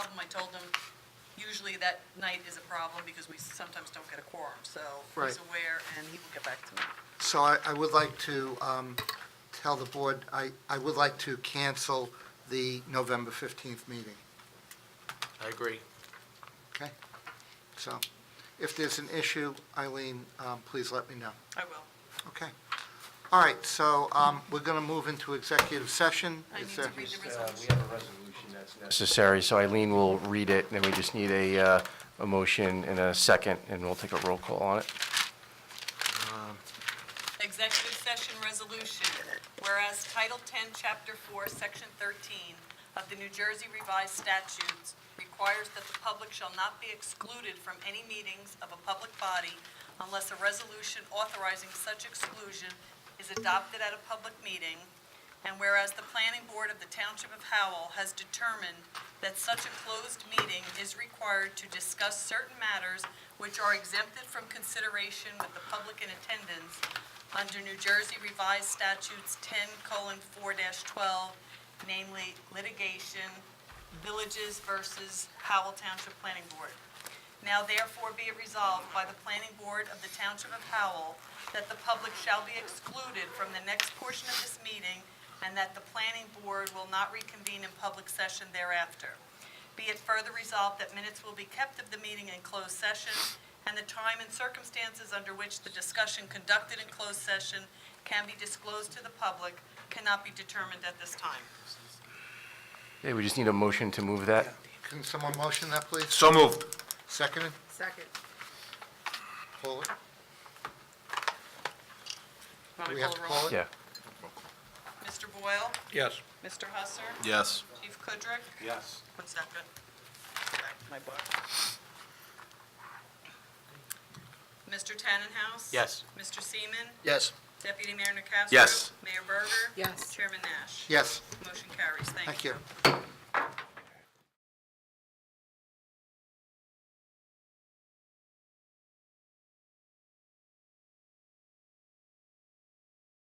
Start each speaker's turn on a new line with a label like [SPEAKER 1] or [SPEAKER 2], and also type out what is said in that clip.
[SPEAKER 1] told him, usually that night is a problem because we sometimes don't get a quorum, so
[SPEAKER 2] Right.
[SPEAKER 1] he's aware and he will get back to me.
[SPEAKER 2] So I, I would like to um, tell the board, I, I would like to cancel the November 15th meeting,
[SPEAKER 3] I agree.
[SPEAKER 2] okay? So if there's an issue, Eileen, um, please let me know.
[SPEAKER 1] I will.
[SPEAKER 2] Okay. All right, so um, we're going to move into executive session.
[SPEAKER 1] I
[SPEAKER 2] Is
[SPEAKER 1] need to
[SPEAKER 2] there-
[SPEAKER 1] read the
[SPEAKER 4] Uh,
[SPEAKER 1] resolution.
[SPEAKER 4] We have a resolution that's necessary.
[SPEAKER 3] Necessary, so Eileen will read it, and then we just need a, uh, a motion and a second, and we'll take a roll call on it.
[SPEAKER 1] Executive session resolution, whereas Title 10, Chapter 4, Section 13 of the New Jersey Revised Statutes requires that the public shall not be excluded from any meetings of a public body unless a resolution authorizing such exclusion is adopted at a public meeting, and whereas the planning board of the Township of Howell has determined that such a closed meeting is required to discuss certain matters which are exempted from consideration with the public in attendance under New Jersey Revised Statutes 10:4-12, namely litigation, villages versus Howell Township Planning Board. Now therefore be it resolved by the Planning Board of the Township of Howell that the public shall be excluded from the next portion of this meeting and that the Planning Board will not reconvene in public session thereafter. Be it further resolved that minutes will be kept of the meeting in closed session and the time and circumstances under which the discussion conducted in closed session can be disclosed to the public cannot be determined at this time.
[SPEAKER 3] Okay, we just need a motion to move that.
[SPEAKER 2] Can someone motion that, please?
[SPEAKER 5] So moved.
[SPEAKER 2] Seconded?
[SPEAKER 1] Second.
[SPEAKER 2] Call it? Do we have to call it?
[SPEAKER 3] Yeah.
[SPEAKER 1] Mr. Boyle?
[SPEAKER 5] Yes.
[SPEAKER 1] Mr. Husser?
[SPEAKER 5] Yes.
[SPEAKER 1] Chief Kudrick?
[SPEAKER 4] Yes.
[SPEAKER 1] One second. Back to My book. Mr. Tannenhouse?
[SPEAKER 3] Yes.
[SPEAKER 1] Mr. Seaman?
[SPEAKER 5] Yes.
[SPEAKER 1] Deputy Mayor Nacastro?
[SPEAKER 5] Yes.
[SPEAKER 1] Mayor Berger?
[SPEAKER 6] Yes.
[SPEAKER 1] Chairman Nash?
[SPEAKER 2] Yes,
[SPEAKER 1] Motion carries.
[SPEAKER 2] thank you.